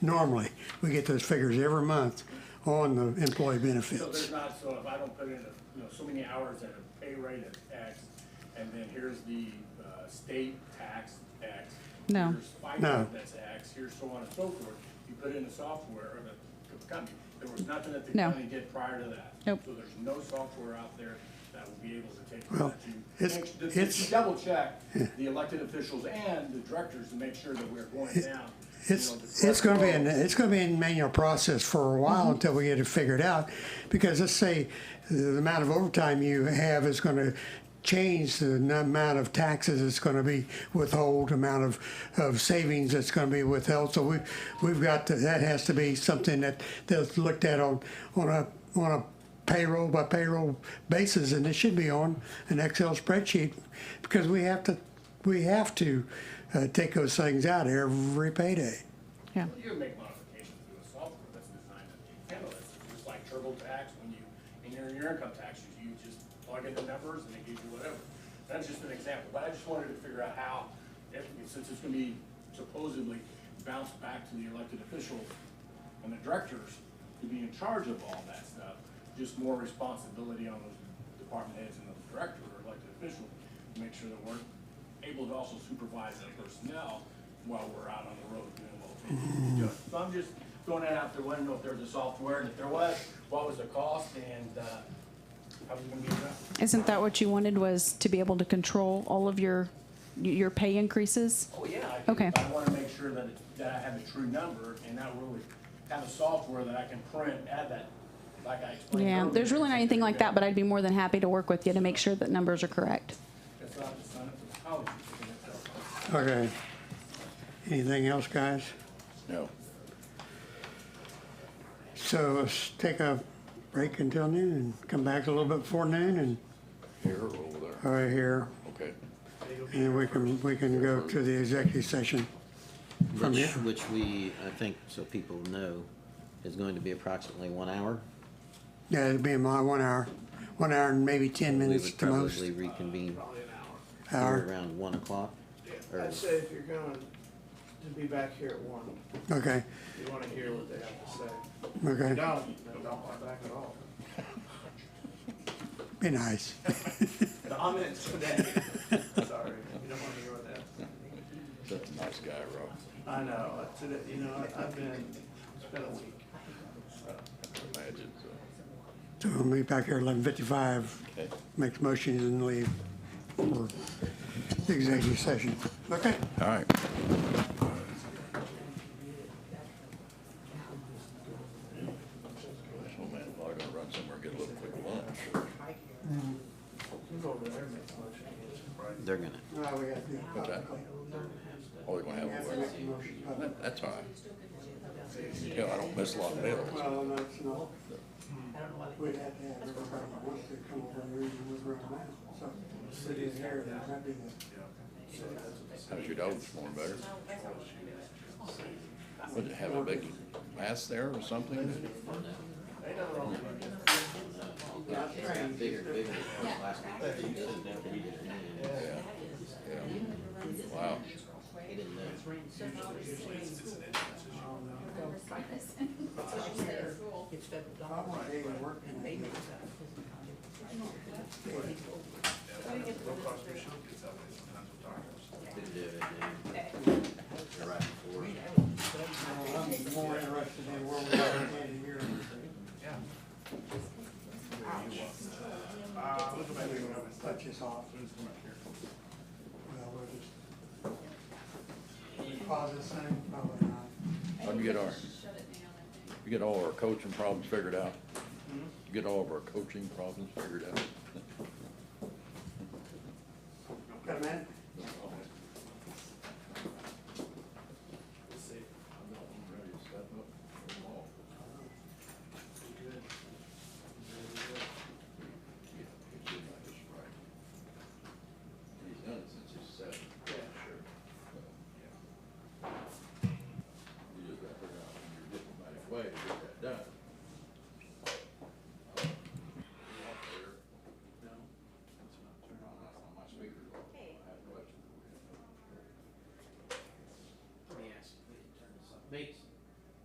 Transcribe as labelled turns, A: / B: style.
A: normally. We get those figures every month on the employee benefits.
B: So there's not, so if I don't put in, you know, so many hours at a pay rate of X, and then here's the uh, state tax, X.
C: No.
B: Here's
A: No.
B: FICA, that's X, here's so on and so forth. You put in the software of the company. There was nothing that the
C: No.
B: county did prior to that.
C: Nope.
B: So there's no software out there that will be able to take.
A: Well, it's- it's-
B: Double check the elected officials and the directors to make sure that we're going down. you know, the
A: It's,
B: correct
A: it's gonna be, an
B: road.
A: it's gonna be a manual process for a while until we get it figured out. Because let's say the amount of overtime you have is gonna change the n- amount of taxes that's gonna be withhold, amount of, of savings that's gonna be withheld. So we, we've got, to- that has to be something that, that's looked at on, on a, on a payroll by payroll basis, and it should be on an Excel spreadsheet. Because we have to, we have to, uh, take those things out every payday.
C: Yeah.
B: You can make modifications to a software that's designed to handle this, It's just like TurboTax, when you, in your, your income taxes, you just plug in the numbers and it gives you whatever. That's just an example, but I just wanted to figure out how, if, since it's gonna be supposedly bounced back to the elected officials and the directors to be in charge of all that stuff, just more responsibility on those department heads and the director or elected official, to make sure that we're able to also supervise that personnel while we're out on the road doing what we need to do. So I'm just throwing that out there, wanting to know if there's a software, and if there was, what was the cost, and, uh, how was it gonna be addressed?
C: Isn't that what you wanted was to be able to control all of your, your pay increases?
B: Oh, yeah. I do.
C: Okay.
B: I wanna make sure that, it- that I have the true number, and not really have a software that I can print, add that, like um, I explained
C: Yeah,
B: earlier.
C: there's really not anything like that, but I'd be more than happy to work with you to make sure that numbers are correct.
B: It's not, it's not, it's a college, it's a telephone.
A: Okay. Anything else, guys?
D: No.
A: So let's take a break until noon and come back a little bit before noon and,
D: Here or over there?
A: or here.
D: Okay.
A: And then we can, we can go to the executive session. From
E: Which,
A: here?
E: which we, I think, so people know, is going to be approximately one hour.
A: Yeah, it'll be in my one hour, one hour and maybe ten
E: We
A: minutes
E: would
A: to most.
E: probably reconvene
F: Probably an hour.
E: here
A: Hour.
E: around one o'clock. or-
F: I'd say if you're going to be back here at one,
A: Okay,
F: you want to hear what they have to say.
A: okay,
F: Don't, then don't come back at all.
A: be nice.
F: Comments today. Sorry, you don't want to hear what they have to say.
D: That's a nice guy, Rob.
F: I know, today, you know, I- I've been, it's been a week.
D: Imagine, so.
A: So we'll be back here eleven fifty-five,
D: Okay.
A: make the motion and leave for the executive session. Okay?
D: All right. This old man probably gonna run somewhere, and get a little quick lunch. or-
F: You go over there and make a motion.
E: They're gonna,
A: No, we got to do it
D: What's that?
A: publicly.
D: Oh, they're gonna
A: We have
D: have
A: to
D: a
A: make
D: wedding.
A: the motion publicly.
D: That- That's all right. Hell, I don't miss a lot of meals.
A: Well, no, it's not. We'd have to have everybody that wants to come over here and move around now, so city's here, that might be the.
D: How's your dog this morning, better? Would it have a big mass there or something?
E: bigger, bigger than last week. He didn't know. He didn't know.
D: Yeah, yeah. Wow.
E: He didn't know.
A: Probably they even work in it.
E: Didn't do it, didn't he? Right before.
A: Well, I'm more interested in where we are in here. Yeah. Touch us off. Well, we'll just. Pause this thing, probably not.
D: How'd you get our, you get all our coaching problems figured out? You Get all of our coaching problems figured out?
A: Got a minute?
D: He's done it since he's seven. Yeah, sure. You just got to figure out in your diplomatic way to get that done. Uh, you up there? Turn on, that's on my speaker. I have a question.
G: Let me ask, wait, turn this up. Bates,